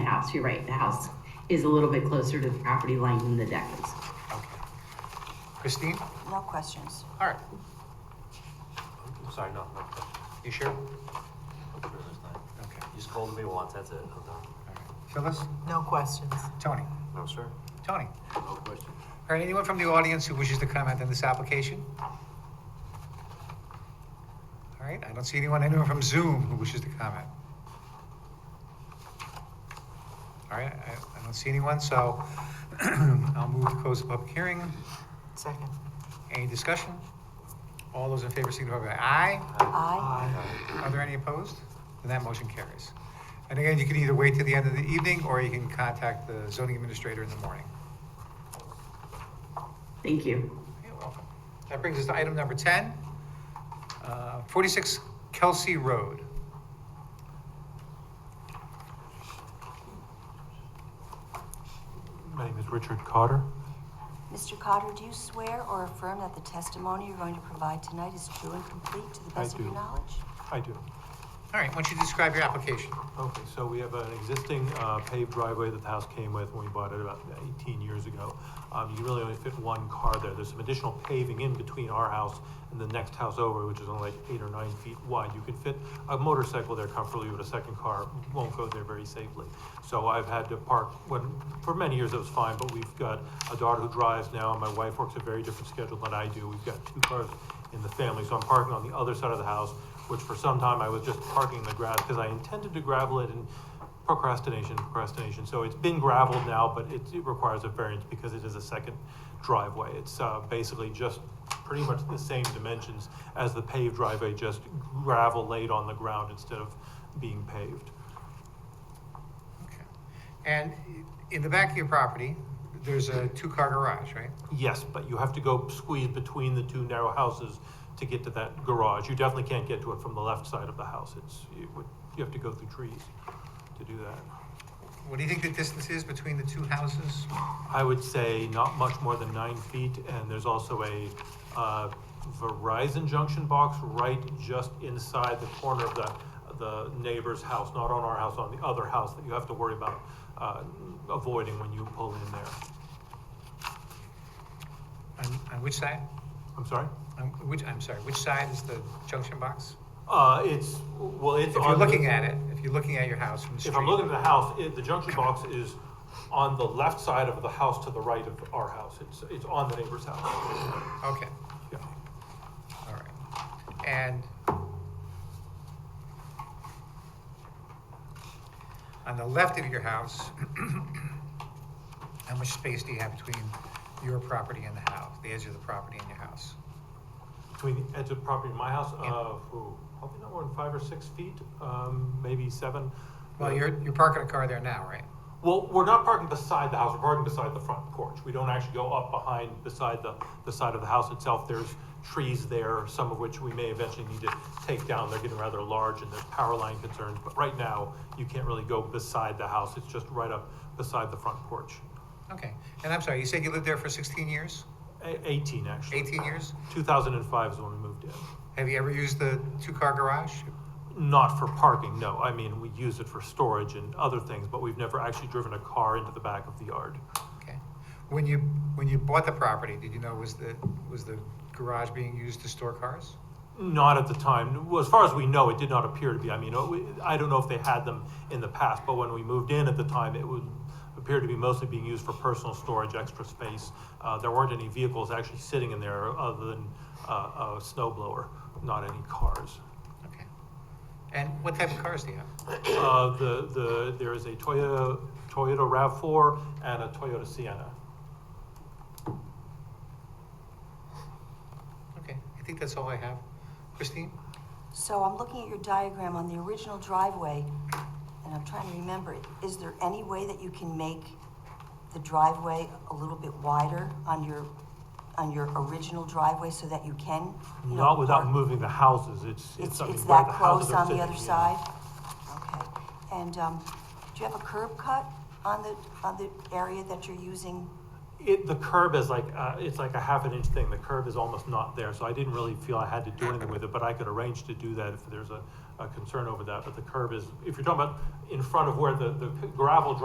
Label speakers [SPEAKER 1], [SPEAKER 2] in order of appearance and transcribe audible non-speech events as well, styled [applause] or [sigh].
[SPEAKER 1] house, you're right, the house is a little bit closer to the property line than the deck is.
[SPEAKER 2] Okay. Christine?
[SPEAKER 3] No questions.
[SPEAKER 2] All right. Sorry, no, no question. You sure? Okay.
[SPEAKER 4] You scolded me once, that's it, I'm done.
[SPEAKER 2] all right. Phyllis?
[SPEAKER 5] No questions.
[SPEAKER 2] Tony?
[SPEAKER 4] No, sir?
[SPEAKER 2] Tony?
[SPEAKER 4] No question.
[SPEAKER 2] All right, anyone from the audience who wishes to comment on this application? All right, I don't see anyone, anyone from Zoom who wishes to comment? All right, I, I don't see anyone, so [clears throat] I'll move to close the public hearing.
[SPEAKER 5] Second.
[SPEAKER 2] Any discussion? All those in favor signify by aye.
[SPEAKER 3] Aye.
[SPEAKER 2] Are there any opposed? Then that motion carries. And again, you can either wait till the end of the evening, or you can contact the zoning administrator in the morning.
[SPEAKER 1] Thank you.
[SPEAKER 2] You're welcome. That brings us to item number 10, uh, 46 Kelsey Road.
[SPEAKER 6] My name is Richard Cotter.
[SPEAKER 3] Mr. Cotter, do you swear or affirm that the testimony you're going to provide tonight is true and complete to the
[SPEAKER 6] I
[SPEAKER 3] best of your
[SPEAKER 6] do.
[SPEAKER 3] knowledge?
[SPEAKER 6] I do.
[SPEAKER 2] All right, why don't you describe your application?
[SPEAKER 6] Okay, so we have an existing uh, paved driveway that the house came with when we bought it about 18 years ago. Um, You can really only fit one car there. There's some additional paving in between our house and the next house over, which is only like eight or nine feet wide. You can fit a motorcycle there comfortably, but a second car won't go there very safely. So I've had to park, when, for many years it was fine, but we've got a daughter who drives now, and my wife works a very different schedule than I do. We've got two cars in the family, so I'm parking on the other side of the house, which for some time I was just parking in the grass because I intended to gravel it and procrastination, procrastination. So it's been gravelled now, but it, it requires a variance because it is a second driveway. It's uh, basically just pretty much the same dimensions as the paved driveway, just gravel laid on the ground instead of being paved.
[SPEAKER 2] Okay. And in the back of your property, there's a two-car garage, right?
[SPEAKER 6] Yes, but you have to go squeeze between the two narrow houses to get to that garage. You definitely can't get to it from the left side of the house. It's, you would, you have to go through trees to do that.
[SPEAKER 2] What do you think the distance is between the two houses?
[SPEAKER 6] I would say not much more than nine feet, and there's also a uh, Verizon junction box right just inside the corner of the, the neighbor's house, not on our house, on the other house that you have to worry about uh, avoiding when you pull in there.
[SPEAKER 2] On on which side?
[SPEAKER 6] I'm sorry?
[SPEAKER 2] On which, I'm sorry, which side is the junction box?
[SPEAKER 6] Uh, It's, well, it's.
[SPEAKER 2] If you're
[SPEAKER 6] on the-
[SPEAKER 2] looking at it, if you're looking at your house from the street.
[SPEAKER 6] If I'm looking at the house, it, the junction box is on the left side of the house to the right of our house. It's, it's on the neighbor's house.
[SPEAKER 2] Okay,
[SPEAKER 6] Yeah.
[SPEAKER 2] all right. And on the left of your house, [clears throat] how much space do you have between your property and the house, the edge of the property and your house?
[SPEAKER 6] Between the edge of property and my house,
[SPEAKER 2] Yeah.
[SPEAKER 6] uh, ooh, probably not more than five or six feet, um, maybe seven.
[SPEAKER 2] Well, you're, you're parking a car there now, right?
[SPEAKER 6] Well, we're not parking beside the house, we're parking beside the front porch. We don't actually go up behind, beside the, the side of the house itself. There's trees there, some of which we may eventually need to take down. They're getting rather large and there's power line concerns. But right now, you can't really go beside the house, it's just right up beside the front porch.
[SPEAKER 2] Okay, and I'm sorry, you said you lived there for 16 years,
[SPEAKER 6] A- Eighteen, actually.
[SPEAKER 2] 18 years?
[SPEAKER 6] Two thousand and five is when we moved in.
[SPEAKER 2] Have you ever used the two-car garage?
[SPEAKER 6] Not for parking, no. I mean, we use it for storage and other things, but we've never actually driven a car into the back of the yard.
[SPEAKER 2] Okay. When you, when you bought the property, did you know was the, was the garage being used to store cars?
[SPEAKER 6] Not at the time. Well, As far as we know, it did not appear to be. I mean, uh, we- I don't know if they had them in the past, but when we moved in at the time, it would appear to be mostly being used for personal storage, extra space. Uh, there weren't any vehicles actually sitting in there other than uh, a snow blower, not any cars.
[SPEAKER 2] Okay. And what type of cars do you have?
[SPEAKER 6] Uh, the, the, there is a Toyota, Toyota RAV4 and a Toyota Sienna.
[SPEAKER 2] Okay, I think that's all I have. Christine?
[SPEAKER 3] So I'm looking at your diagram on the original driveway, and I'm trying to remember, is there any way that you can make the driveway a little bit wider on your, on your original driveway so that you can? you know,
[SPEAKER 6] Not without
[SPEAKER 3] park-
[SPEAKER 6] moving the houses, it's,
[SPEAKER 3] It's,
[SPEAKER 6] it's, I mean,
[SPEAKER 3] it's
[SPEAKER 6] where
[SPEAKER 3] that
[SPEAKER 6] the
[SPEAKER 3] close
[SPEAKER 6] houses are
[SPEAKER 3] on the
[SPEAKER 6] sitting,
[SPEAKER 3] other
[SPEAKER 6] yeah.
[SPEAKER 3] side? Okay, and, um, do you have a curb cut on the, on the area that you're using?
[SPEAKER 6] It, the curb is like, uh, it's like a half an inch thing, the curb is almost not there, so I didn't really feel I had to do anything with it, but I could arrange to do that if there's a, a concern over that, but the curb is, if you're talking about in front of where the, the gravel